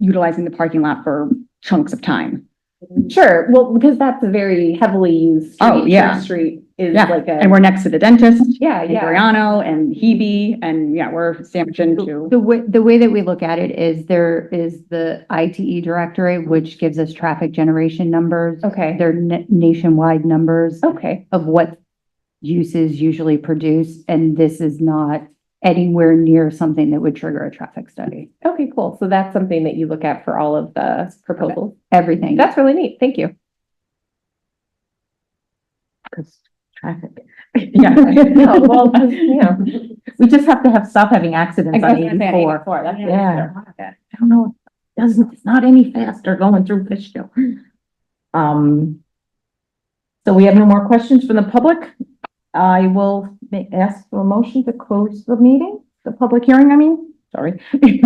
utilizing the parking lot for chunks of time. Sure, well, because that's a very heavily used. Oh, street. yeah. Church Street is Yeah, like And a, we're next to the dentist, yeah, and yeah. Briano and Hebe, and yeah, we're sandwiched into. The way, the way that we look at it is there is the ITE directorate, which gives us traffic generation numbers. Okay, They're na- nationwide numbers okay, of what uses usually produce, and this is not anywhere near something that would trigger a traffic study. okay, cool. So that's something that you look at for all of the proposals. Everything. That's really neat. Thank you. Because traffic. Yeah. No, well, you know, We just have to have, stop having accidents on Four. eighty-four. That's- Yeah. I don't know, it doesn't, it's not any faster going through Fishkill. Um, so we have no more questions from the public. I will ma- ask for a motion to close the meeting, the public hearing, I mean, sorry. Make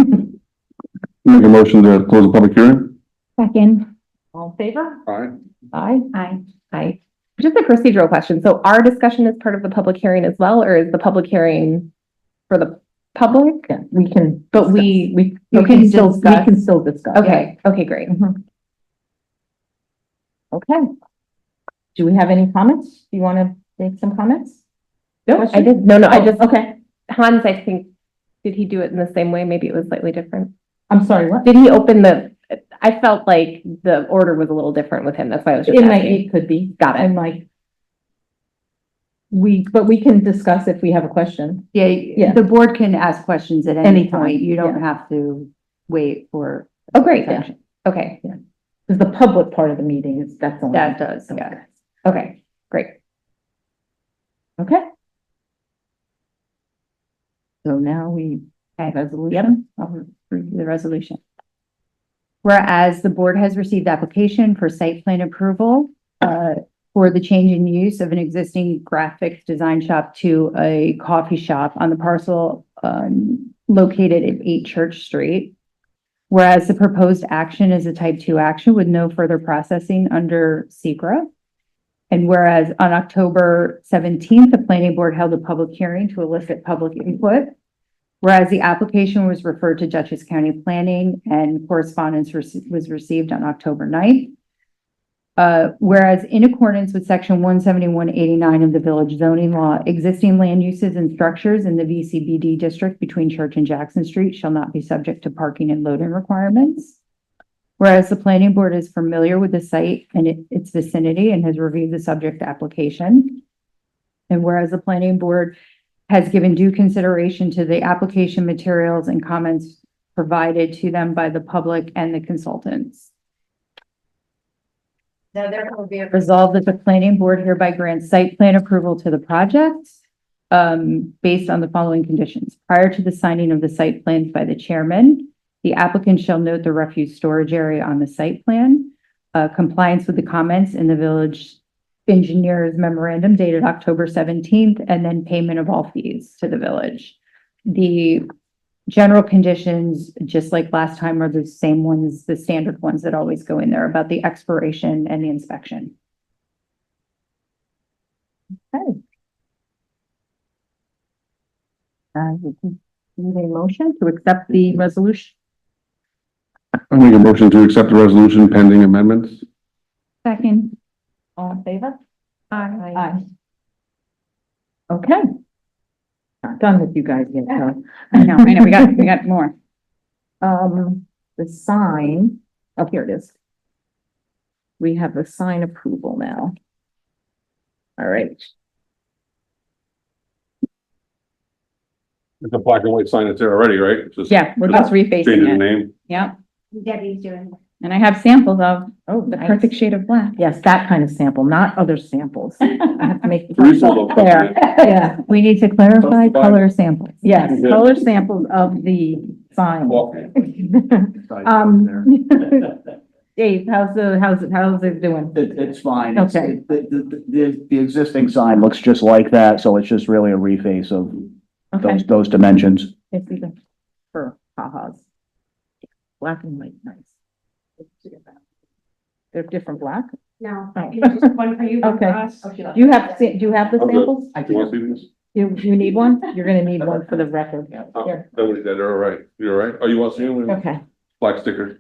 a motion to close the public hearing? Second. All in favor? Aye. Aye. Aye. Aye. Just a procedural question. So our discussion is part of the public hearing as well, or is the public hearing for the public? Yeah, We can. But we, we, We okay, can still, we discuss. can still discuss. okay, okay, great. Mhm. Okay. Do we have any comments? Do you want to make some comments? No, I Question? did, no, no, I just, Oh, Okay, Hans, I think, did he do it in the same way? Maybe it was slightly different. I'm sorry, what? Did he open the, I felt like the order was a little different with him. That's why I was just It might, asking. it could be. Got it. I'm like. We, but we can discuss if we have a question. Yeah, the board can ask questions at any Anytime, point. You don't yeah. have to wait for. Oh, great. Yeah. Okay, Because the public part of the meeting is, that's only. that does, got it. Okay, great. Okay. So now we. Okay. Resolution. I'll review the resolution. Whereas the board has received application for site plan approval uh, for the change in use of an existing graphics design shop to a coffee shop on the parcel um, located at 8 Church Street. Whereas the proposed action is a type 2 action with no further processing under SECR. And whereas on October 17th, the planning board held a public hearing to elicit public input. Whereas the application was referred to Dutchess County Planning and correspondence rece- was received on October 9th. Uh, whereas in accordance with section one seventy-one eighty-nine of the village zoning law, existing land uses and structures in the VCBD district between Church and Jackson Street shall not be subject to parking and loading requirements. Whereas the planning board is familiar with the site and it- its vicinity and has reviewed the subject application. And whereas the planning board has given due consideration to the application materials and comments provided to them by the public and the consultants. Now therefore be it resolved that the planning board hereby grants site plan approval to the project um, based on the following conditions. Prior to the signing of the site plans by the chairman, the applicant shall note the refuse storage area on the site plan, uh, compliance with the comments in the village engineer's memorandum dated October seventeenth, and then payment of all fees to the village. The general conditions, just like last time, are the same ones, the standard ones that always go in there about the expiration and the inspection. Uh, we can- we need a motion to accept the resolution. I make a motion to accept the resolution pending amendments? Second. All in favor? Aye. Aye. Okay. Not done with you guys yet, huh? I know, I know, we got, we got more. Um, the sign, oh, here it is. We have the sign approval now. All right, It's a black and white sign that's there already, right? Just Yeah, Oh, we're just Changing the refacing it. name. Yeah. And I have samples of oh, the nice. perfect shade of black. Yes, that kind of sample, not other samples. I have to make. Three sold them. There, yeah, We need to clarify Justify. color samples. yes, Yeah. color samples of the sign. Walking. Um, Dave, how's the, how's it, how's it doing? It, it's fine. It's- Okay. The, the, the, the existing sign looks just like that, so it's just really a reface of Okay. those, those dimensions. It's even for ha-has. Black and white, nice. They're different black? No, Oh. it's just one for you, one for Okay. us. Do you have, sa- do you have the Okay. samples? Do you want to see these? You, you need one? You're gonna need one for the record. Oh, Here. Nobody's dead, they're all right. You're all right? Oh, you want to see them? Okay. Black sticker.